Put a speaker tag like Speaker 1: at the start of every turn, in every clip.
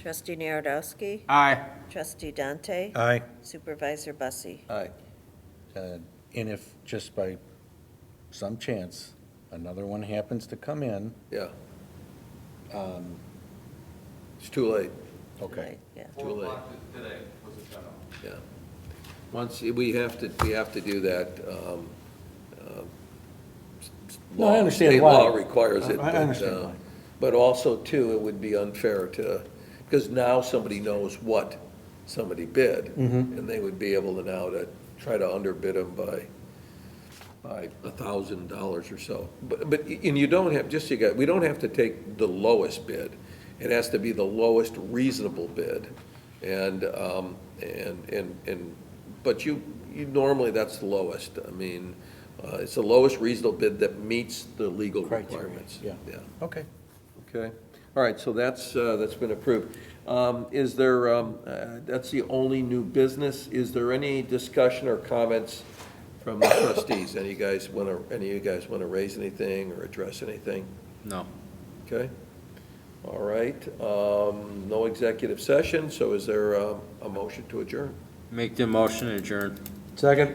Speaker 1: Trustee Narodowski,
Speaker 2: Aye.
Speaker 1: Trustee Dante,
Speaker 3: Uh,
Speaker 4: Aye.
Speaker 1: Supervisor Bussie.
Speaker 3: Aye. Uh, And if, just by some chance, another one happens to come in,
Speaker 5: Yeah. Um, It's too late,
Speaker 3: okay.
Speaker 1: Yeah.
Speaker 5: too late,
Speaker 2: Today was a shut-off.
Speaker 5: yeah. Once, we have to, we have to do that. um, um, s- s-
Speaker 3: No, I
Speaker 5: law-
Speaker 3: understand
Speaker 5: state
Speaker 3: why.
Speaker 5: law requires it.
Speaker 3: I- I
Speaker 5: but,
Speaker 3: understand
Speaker 5: uh,
Speaker 3: why.
Speaker 5: But also, too, it would be unfair to, because now somebody knows what somebody bid.
Speaker 3: Mm-hmm.
Speaker 5: And they would be able to now to try to underbid them by, by a thousand dollars or so. But, but, and you don't have, just so you got, we don't have to take the lowest bid. It has to be the lowest reasonable bid. And, um, and, and, and, but you, you normally, that's the lowest. I mean, uh, it's the lowest reasonable bid that meets the legal
Speaker 3: Criteria,
Speaker 5: requirements.
Speaker 3: yeah.
Speaker 5: Yeah.
Speaker 3: Okay.
Speaker 5: Okay, all right, so that's, uh, that's been approved. Um, Is there, um, uh, that's the only new business, is there any discussion or comments from the trustees? Any guys want to, any of you guys want to raise anything or address anything?
Speaker 2: No.
Speaker 5: Okay, all right, um, no executive session, so is there um, a motion to adjourn?
Speaker 2: Make the motion adjourn.
Speaker 3: Second?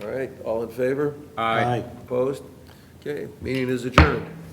Speaker 5: All right, all in favor?
Speaker 2: Aye.
Speaker 5: Opposed? Okay, meeting is adjourned.